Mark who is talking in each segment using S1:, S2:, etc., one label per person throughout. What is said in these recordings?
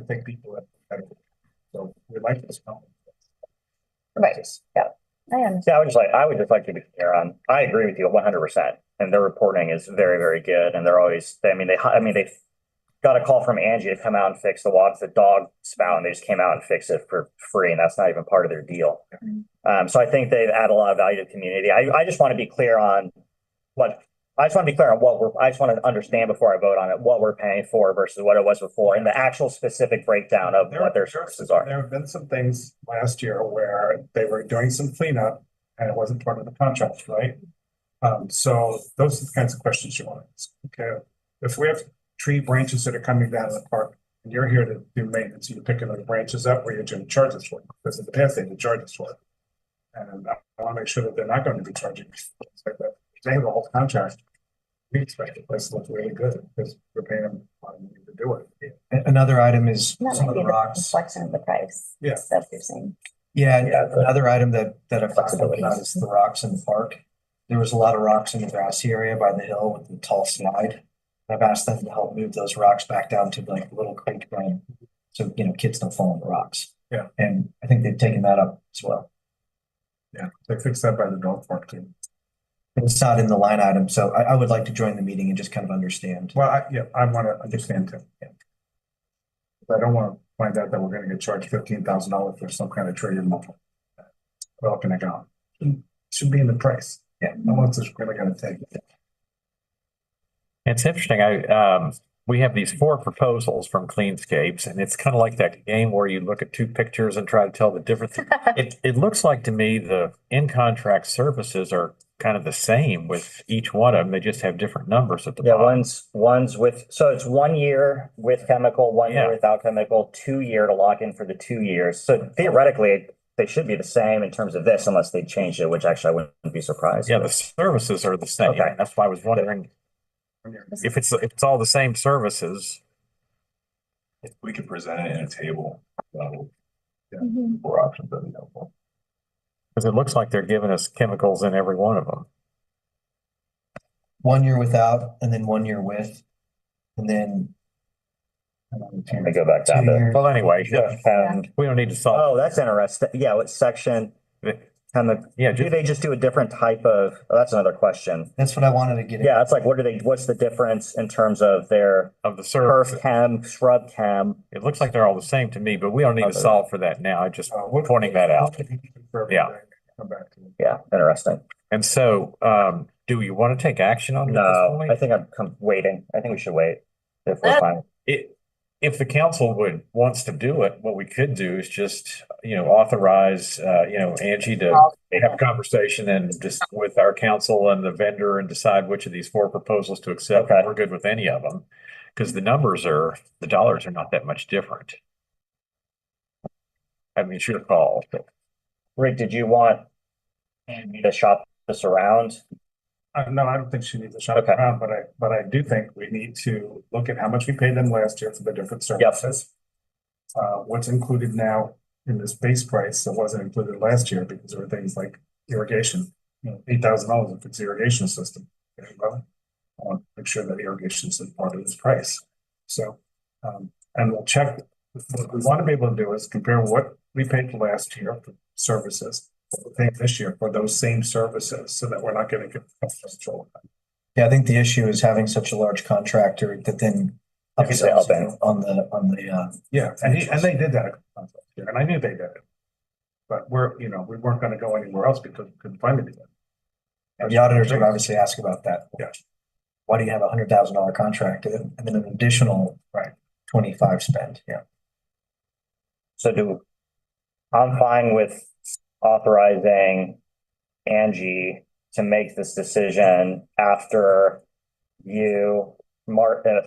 S1: to take people at better. So we like this company.
S2: Right.
S1: Just-
S2: I am.
S3: See, I would just like, I would just like to be clear on, I agree with you one hundred percent. And their reporting is very, very good and they're always, I mean, they, hi- I mean, they got a call from Angie to come out and fix the water, the dog spout and they just came out and fixed it for free and that's not even part of their deal.
S2: Mhm.
S3: Um, so I think they add a lot of value to the community. I, I just want to be clear on what, I just want to be clear on what we're, I just want to understand before I vote on it, what we're paying for versus what it was before and the actual specific breakdown of
S1: There-
S3: what their
S1: there-
S3: services are.
S1: There have been some things last year where they were doing some cleanup and it wasn't part of the contract, right? Um, so those are the kinds of questions you want to ask. Okay, if we have tree branches that are coming down in the park and you're here to do maintenance, you're picking those branches up where you're going to charge us for it, because in the past they didn't charge us for it. And I want to make sure that they're not going to be charging. us like that. They have a whole contract. We expect the place to look really good because we're paying them a lot of money to do it.
S4: A- Another item is
S2: That
S4: some
S2: might
S4: of
S2: be
S4: the
S2: the
S4: rocks.
S2: Reflection of the price.
S1: Yeah.
S2: That's what you're saying.
S4: Yeah, and uh,
S3: Yeah, the-
S4: another item that, that I've talked
S3: Flexibility.
S4: about is the rocks in the park. There was a lot of rocks in the grassy area by the hill with the tall slide. I've asked them to help move those rocks back down to like Little Creek Run. So, you know, kids don't fall on the rocks.
S1: Yeah.
S4: And I think they've taken that up as well.
S1: Yeah, they fixed that by the dog park too.
S4: But it's not in the line item, so I, I would like to join the meeting and just kind of understand.
S1: Well, I, yeah, I wanna understand too. yeah. But I don't wanna find out that we're gonna get charged fifteen thousand dollars for some kind of tree removal. Well, can I go? Should be in the price.
S4: Yeah.
S1: No one's just really gonna take it.
S5: It's interesting. I, um, we have these four proposals from Cleanscapes and it's kind of like that game where you look at two pictures and try to tell the difference.
S2: Mm-hmm.
S5: It, it looks like to me the in-contract services are kind of the same with each one of them. They just have different numbers at the
S3: Yeah,
S5: bottom.
S3: one's, one's with, so it's one year with chemical, one year
S5: Yeah.
S3: without chemical, two year to lock in for the two years. So theoretically, they should be the same in terms of this unless they changed it, which actually I wouldn't be surprised.
S5: Yeah, the services are the same.
S3: Okay.
S5: That's why I was wondering if it's, if it's all the same services.
S6: We could present it in a table, uh,
S2: Mhm.
S6: four options, that'd be helpful.
S5: Cause it looks like they're giving us chemicals in every one of them.
S4: One year without and then one year with, and then. um,
S3: Let me go back down
S4: two
S3: to.
S4: years.
S5: Well, anyway,
S3: And,
S5: we don't need to solve.
S3: oh, that's interesting. Yeah, what section, kind of,
S5: Yeah,
S3: do
S5: just,
S3: they just do a different type of, oh, that's another question.
S4: That's what I wanted to get. at.
S3: Yeah, it's like, what are they, what's the difference in terms of their
S5: of the service.
S3: perf chem, shrub chem?
S5: It looks like they're all the same to me, but we don't need to
S3: Okay.
S5: solve for that now. I just
S1: Uh,
S5: pointing that out. Yeah.
S1: Come back to it.
S3: Yeah, interesting.
S5: And so, um, do you want to take action on it Um, at this
S3: No, I
S5: point?
S3: think I'm com- waiting. I think we should wait. If we're fine.
S5: It, if the council would, wants to do it, what we could do is just, you know, authorize, uh, you know, Angie to have a conversation and just with our council and the vendor and decide which of these four proposals to accept.
S3: Okay.
S5: We're good with any of them. Because the numbers are, the dollars are not that much different. I mean, should have called.
S3: Rick, did you want me to shop this around?
S1: Uh, no, I don't think she needs a shot
S3: Okay.
S1: around, but I, but I do think we need to look at how much we paid them last year for the different
S3: Yep.
S1: services. Uh, what's included now in this base price that wasn't included last year because there were things like irrigation. You know, eight thousand dollars if it's irrigation system. Okay, well, I want to make sure that irrigation is part of this price. So, um, and we'll check, what we want to be able to do is compare what we paid last year for services. what we paid this year for those same services, so that we're not getting confused.
S4: Yeah, I think the issue is having such a large contractor that then
S3: Yeah, they help
S4: upsells you
S3: out.
S4: on the, on the, uh,
S1: Yeah, and he, and they did that, a couple times last year, and I knew they did it. But we're, you know, we weren't gonna go anywhere else because we couldn't find anything.
S4: the auditors would obviously ask about that.
S1: Yeah.
S4: Why do you have a hundred thousand dollar contract and then an additional, right, twenty-five spend? Yeah.
S3: So do, I'm fine with authorizing Angie to make this decision after you, Mark, uh,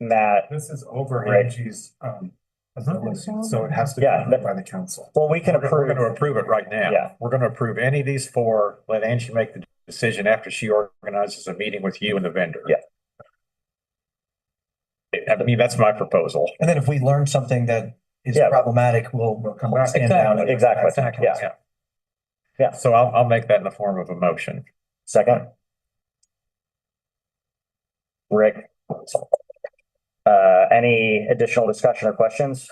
S3: Matt.
S1: This is over
S3: Right.
S1: Angie's, um,
S5: Mhm.
S1: so it has to be
S3: Yeah.
S1: approved by the council.
S3: Well, we can
S5: We're gonna- We're
S3: approve.
S5: gonna approve it right now.
S3: Yeah.
S5: We're gonna approve any of these four, let Angie make the decision after she organizes a meeting with you and the vendor.
S3: Yeah.
S5: I mean, that's my proposal.
S4: And then if we learn something that is
S3: Yeah.
S4: problematic, we'll, we'll come
S1: back.
S4: stand down. and-
S3: Exactly. Yeah. Yeah.
S5: So I'll, I'll make that in the form of a motion.
S3: Second. Rick. Uh, any additional discussion or questions?